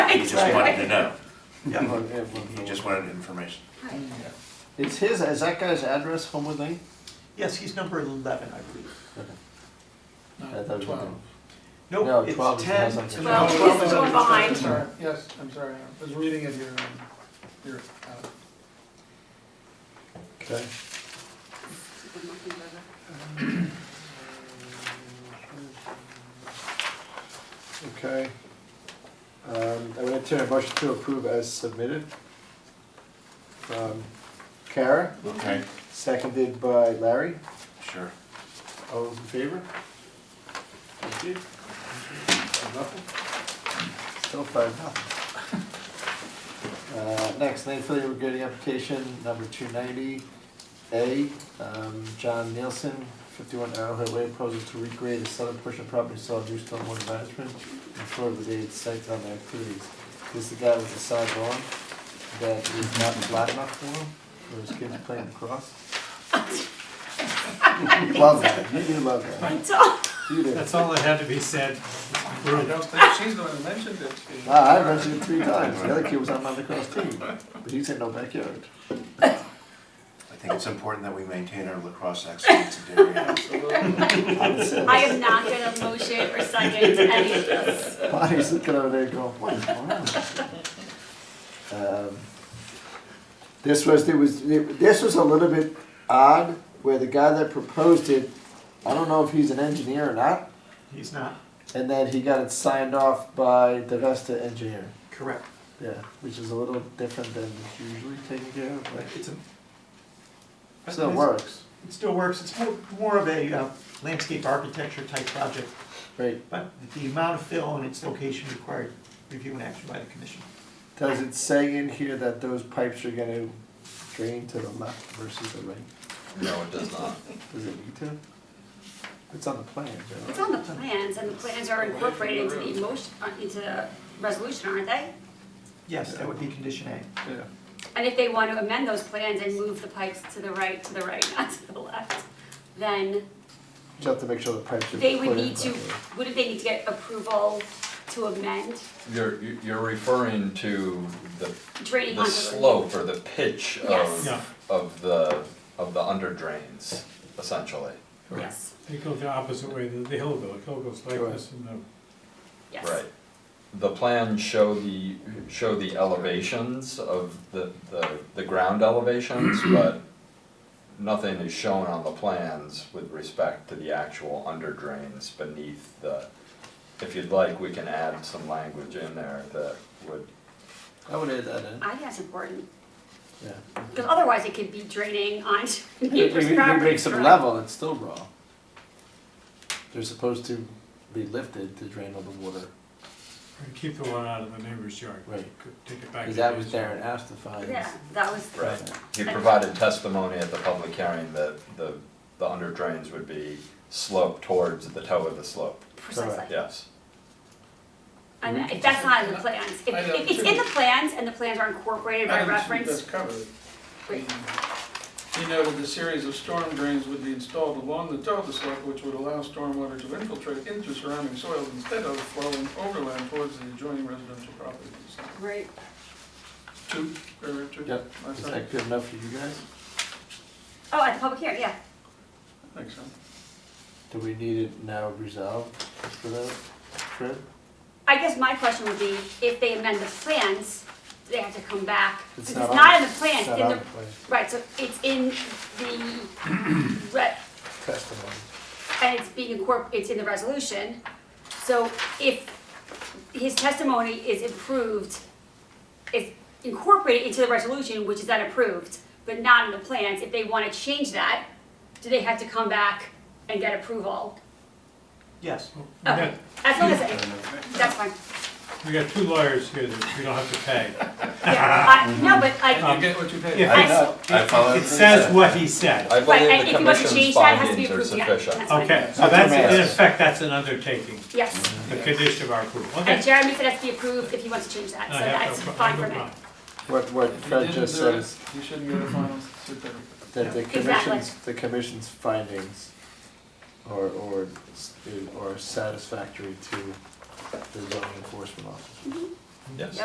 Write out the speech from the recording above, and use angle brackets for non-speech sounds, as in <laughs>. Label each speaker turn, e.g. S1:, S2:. S1: just wanted to
S2: Right.
S1: know,
S3: Yeah.
S1: he just wanted information.
S4: It's his, is that guy's address Homewood Lane?
S3: Yes, he's number eleven, I believe.
S4: I thought it was
S5: Twelve.
S4: No,
S3: Nope,
S4: 12
S3: it's
S4: is the house
S3: ten.
S4: on
S3: to
S4: Church.
S2: Well,
S3: 12.
S2: this is the one behind her.
S5: Yes, I'm sorry, I was reading it here, um, here, uh,
S4: Okay.
S6: Okay. Um, I would entertain a motion to approve as submitted. From Kara,
S1: Okay.
S6: seconded by Larry.
S1: Sure.
S6: All those in favor? Thank you. Five, Nothing?
S4: Still five, nothing. <laughs> Uh, Next, landfill regrading application number two ninety A. Um, John Nielsen, fifty-one Arrowhead Way, proposal to regrade the southern portion of property, solid new stormwater management, and further related site development activities. This is the guy with the side lawn that is not flat enough for him, where his kids playing lacrosse. Love that, you do love that, you do.
S7: That's all that had to be said.
S5: I don't think she's the one who mentioned it. She-
S4: Ah, I mentioned it three times. The other kid was on my lacrosse team, but he said no backyard.
S1: I think it's important that we maintain our lacrosse excellence in Darien.
S2: <laughs> I am not gonna motion or second any of this.
S4: Bonnie's looking over there going, what is going on? Um, This was, there was, this was a little bit odd, where the guy that proposed it, I don't know if he's an engineer or not,
S3: He's not,
S4: and then he got it signed off by the Vesta engineer.
S3: correct.
S4: Yeah, which is a little different than it's usually taken care of, but
S3: It's a.
S4: it still works.
S3: It still works. It's more, more of a uh, landscape architecture type project,
S4: Right,
S3: but the amount of fill and its location required review and action by the commission.
S4: Does it say in here that those pipes are gonna drain to the left versus the right?
S8: No, it does not.
S4: Does it need to? It's on the plan,
S2: It's
S4: Joe.
S2: on the plans, and the plans are incorporated into the emotion, uh, into the resolution, aren't they?
S3: Yes, that would be condition A.
S4: Yeah.
S2: And if they want to amend those plans and move the pipes to the right, to the right, <laughs> not to the left, then
S4: Just have to make sure the pipes are.
S2: they would
S4: put in
S2: need to,
S4: properly.
S2: wouldn't they need to get approval to amend
S8: You're, you're referring to the,
S2: draining
S8: the
S2: onto the.
S8: slope or the pitch
S2: Yes.
S3: Yeah.
S8: of, of the, of the under drains, essentially.
S2: Yes,
S7: They go the opposite way, the the hill goes, the hill goes like
S4: Right.
S7: this and the
S2: yes.
S8: Right. The plans show the, show the elevations of the, the, the ground elevations, but nothing is shown on the plans with respect to the actual under drains beneath the, if you'd like, we can add some language in there that would
S4: I would add that in,
S2: I think that's important,
S4: yeah.
S2: because otherwise it could be draining onto <laughs>
S4: If
S2: neighbor's
S4: you
S2: property.
S4: make some level, it's still raw. They're supposed to be lifted to drain all the water.
S7: and keep the one out of the neighbor's yard.
S4: Right.
S7: Could Take it back.
S4: Cause
S7: to
S4: that
S7: the
S4: was
S7: yard.
S4: Darren asked to find.
S2: Yeah, that was,
S8: Right. He provided testimony at the public hearing that the, the under drains would be sloped towards the toe of the slope,
S2: precisely.
S8: yes.
S2: And if that's not in the plans, if,
S5: I know,
S2: if it's in the plans and the plans are incorporated by
S5: Item two does
S2: reference,
S5: cover it.
S2: Great.
S5: He noted the series of storm drains would be installed along the toe of the slope, which would allow stormwater to infiltrate into surrounding soils instead of flowing overland towards the adjoining residential properties.
S2: right,
S5: Two, paragraph two?
S4: Yep,
S5: My
S4: Is
S5: side.
S4: that good enough for you guys?
S2: oh, at the public hearing, yeah,
S5: Thanks, Sam.
S4: Do we need it now resolved for that, Fred?
S2: I guess my question would be, if they amend the plans, do they have to come back?
S4: It's
S2: Since
S4: not
S2: it's
S4: on-
S2: not in the plans,
S4: It's not
S2: in
S4: on
S2: the,
S4: the plan.
S2: right, so it's in the, re-
S4: Testimony.
S2: and it's being incorpor, it's in the resolution. So if his testimony is improved, is incorporated into the resolution, which is then approved, but not in the plans, if they want to change that, do they have to come back and get approval?
S3: Yes,
S7: We got,
S2: As long as, that's fine.
S7: we got two lawyers here that we don't have to pay.
S2: Yeah, I, no, but
S7: <laughs>
S4: Um,
S5: You
S2: like,
S5: get what you pay.
S7: If
S2: I,
S7: it-
S2: s-
S1: I follow.
S7: It says what he said.
S8: I
S2: and
S8: believe the
S2: if you want to change
S8: commission's
S2: that, it has to be
S8: findings are
S2: approved, yeah.
S8: sufficient.
S7: Okay, so
S4: Not
S7: that's,
S4: too
S7: in
S4: bad.
S7: effect, that's an undertaking,
S2: yes,
S7: a condition of our approval, okay.
S2: and Jeremy said it has to be approved if he wants to change that,
S7: I
S2: so
S7: have no
S2: that's
S7: pro- I
S2: fine
S7: have no
S2: for me.
S7: problem.
S4: What, what
S5: If you
S4: Fred
S5: didn't
S4: just
S5: do
S4: said
S5: it,
S4: is
S5: You shouldn't get a final certificate.
S4: that the
S2: Exactly.
S4: commission's, the commission's findings are, or, are satisfactory to the zoning enforcement officer.
S8: Yes.